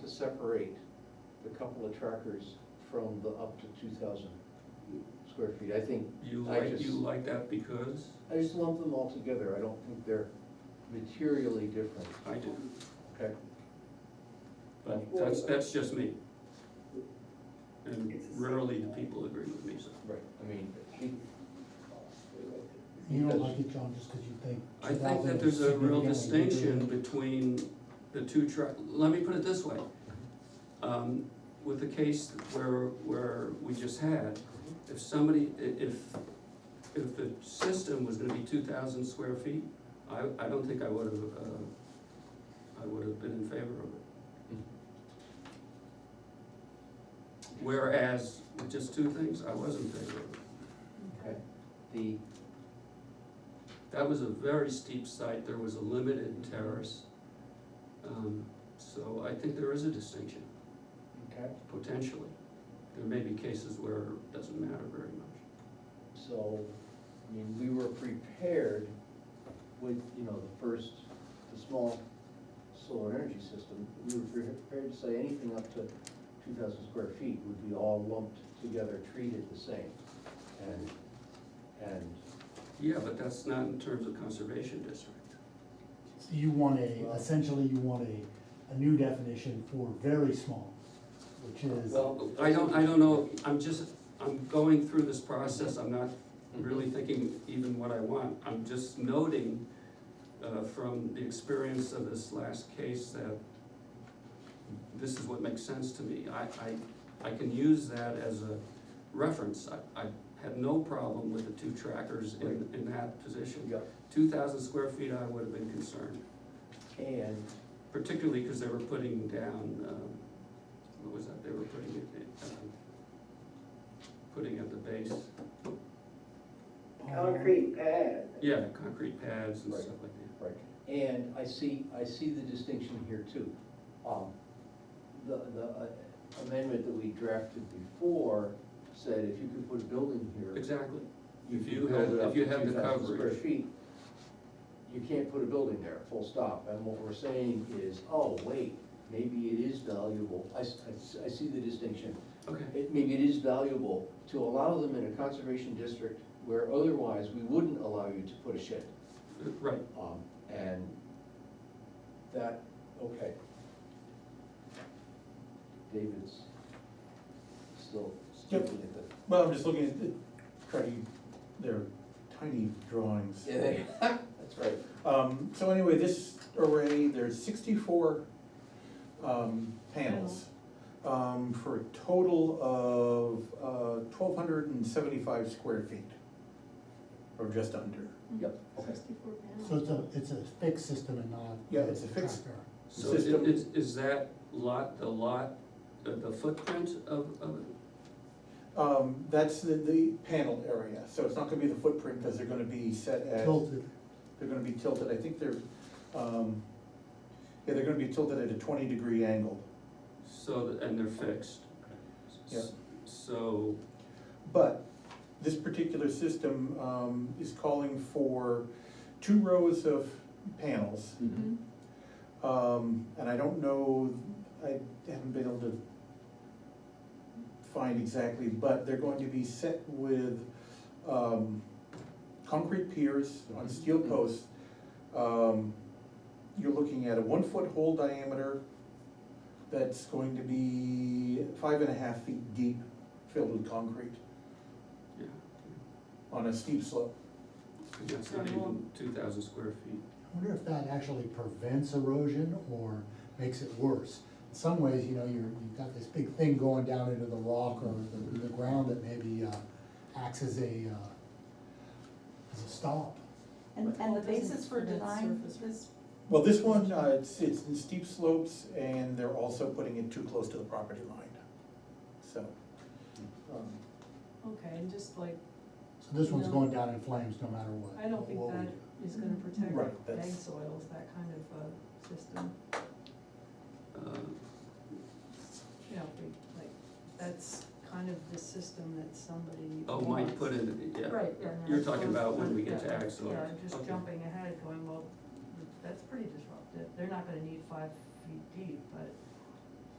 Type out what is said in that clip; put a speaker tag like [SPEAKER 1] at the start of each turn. [SPEAKER 1] to separate the couple of trackers from the up to two thousand square feet, I think.
[SPEAKER 2] You
[SPEAKER 1] I
[SPEAKER 2] like,
[SPEAKER 1] just-
[SPEAKER 2] you like that because
[SPEAKER 1] I just lump them all together, I don't think they're materially different,
[SPEAKER 2] I do,
[SPEAKER 1] okay?
[SPEAKER 2] but that's, that's just me. And rarely do people agree with me, so.
[SPEAKER 1] Right. I mean, he,
[SPEAKER 3] You don't like it, John, just because you think.
[SPEAKER 2] I think that there's a real
[SPEAKER 3] 2000 is significantly
[SPEAKER 2] distinction between the two track, let me put it this way. Um, With the case where, where we just had, if somebody, i- if, if the system was gonna be two thousand square feet, I, I don't think I would have, uh, I would have been in favor of it. Whereas, with just two things, I was in favor of it.
[SPEAKER 1] okay, the,
[SPEAKER 2] That was a very steep site, there was a limited terrace. Um, So I think there is a distinction,
[SPEAKER 1] okay,
[SPEAKER 2] potentially. There may be cases where it doesn't matter very much.
[SPEAKER 1] so, I mean, we were prepared with, you know, the first, the small solar energy system, we were prepared to say anything up to two thousand square feet would be all lumped together, treated the same. And, and,
[SPEAKER 2] Yeah, but that's not in terms of conservation district.
[SPEAKER 3] So You want a, essentially you want a, a new definition for very small, which is,
[SPEAKER 2] Well, I don't, I don't know, I'm just, I'm going through this process, I'm not really thinking even what I want. I'm just noting uh, from the experience of this last case that this is what makes sense to me. I, I, I can use that as a reference. I, I had no problem with the two trackers in, in that position.
[SPEAKER 1] yeah,
[SPEAKER 2] Two thousand square feet, I would have been concerned,
[SPEAKER 1] and
[SPEAKER 2] particularly because they were putting down, um, what was that, they were putting it, um, putting at the base,
[SPEAKER 4] Concrete pad.
[SPEAKER 2] yeah, concrete pads and
[SPEAKER 1] Right.
[SPEAKER 2] stuff like that.
[SPEAKER 1] Right, and I see, I see the distinction here too. Um, The, the uh, amendment that we drafted before said if you could put a building here.
[SPEAKER 2] Exactly, If
[SPEAKER 1] could
[SPEAKER 2] you
[SPEAKER 1] build
[SPEAKER 2] had-
[SPEAKER 1] it
[SPEAKER 2] if
[SPEAKER 1] up to
[SPEAKER 2] you had the
[SPEAKER 1] 2,000 Square
[SPEAKER 2] coverage.
[SPEAKER 1] feet, you can't put a building there, full stop, and what we're saying is, oh, wait, maybe it is valuable, I, s- I s- I see the distinction.
[SPEAKER 2] okay,
[SPEAKER 1] It, maybe it is valuable to allow them in a conservation district where otherwise we wouldn't allow you to put a shed.
[SPEAKER 2] right,
[SPEAKER 1] Um, and that, okay. David's still
[SPEAKER 5] Yep.
[SPEAKER 1] looking at the.
[SPEAKER 5] Well, I'm just looking at the tiny, they're tiny drawings.
[SPEAKER 1] That's right.
[SPEAKER 5] Um, so anyway, this array, there's sixty-four, um, panels. Um, for a total of, uh, twelve hundred and seventy-five square feet. Or just under.
[SPEAKER 1] Yep, okay.
[SPEAKER 6] Sixty-four pounds.
[SPEAKER 3] so it's a, it's a fixed system and not.
[SPEAKER 5] Yeah, it's a fixed-
[SPEAKER 3] tracker.
[SPEAKER 2] so i-
[SPEAKER 5] System.
[SPEAKER 2] is, is that lot, the lot, uh, the footprint of, of it?
[SPEAKER 5] Um, that's the, the panel area, so it's not gonna be the footprint, cause they're gonna be set as.
[SPEAKER 3] Tilted,
[SPEAKER 5] They're gonna be tilted, I think they're, um, yeah, they're gonna be tilted at a twenty-degree angle.
[SPEAKER 2] so, that- and they're fixed?
[SPEAKER 5] Yeah.
[SPEAKER 2] So,
[SPEAKER 5] But this particular system um, is calling for two rows of panels.
[SPEAKER 1] Mm-hmm.
[SPEAKER 6] Mm-hmm.
[SPEAKER 5] Um, And I don't know, I haven't been able to find exactly, but they're going to be set with um, concrete piers on steel posts. Um, You're looking at a one-foot hole diameter that's going to be five and a half feet deep, filled with concrete
[SPEAKER 2] yeah,
[SPEAKER 5] on a steep slope.
[SPEAKER 2] and that's not even two thousand square feet.
[SPEAKER 3] I wonder if that actually prevents erosion or makes it worse. In some ways, you know, you're, you've got this big thing going down into the rock or the, the ground that maybe, uh, acts as a, uh, as a stop.
[SPEAKER 6] And, and the basis for
[SPEAKER 7] Doesn't- and that's
[SPEAKER 6] denying
[SPEAKER 7] surface.
[SPEAKER 6] this,
[SPEAKER 5] Well, this one, uh, it's, it's in steep slopes and they're also putting it too close to the property line, so. um,
[SPEAKER 7] Okay, and just like,
[SPEAKER 3] So this one's
[SPEAKER 7] No.
[SPEAKER 3] going down in flames no matter what.
[SPEAKER 7] I don't think
[SPEAKER 3] what we
[SPEAKER 7] that
[SPEAKER 3] do.
[SPEAKER 7] is gonna
[SPEAKER 5] Right,
[SPEAKER 7] protect
[SPEAKER 5] that's-
[SPEAKER 7] ag soils, that kind of uh system,
[SPEAKER 2] Uh,
[SPEAKER 7] you know, if we, like, that's kind of the system that somebody
[SPEAKER 2] Oh, might
[SPEAKER 7] wants.
[SPEAKER 2] put in, yeah.
[SPEAKER 7] Right, yeah. no,
[SPEAKER 2] You're
[SPEAKER 7] that's
[SPEAKER 2] talking
[SPEAKER 7] what I
[SPEAKER 2] about
[SPEAKER 7] was-
[SPEAKER 2] when we get to
[SPEAKER 7] yeah,
[SPEAKER 2] ag soils.
[SPEAKER 7] Yeah, just
[SPEAKER 2] Okay.
[SPEAKER 7] jumping ahead, going, well, that's pretty disruptive, they're not gonna need five feet deep, but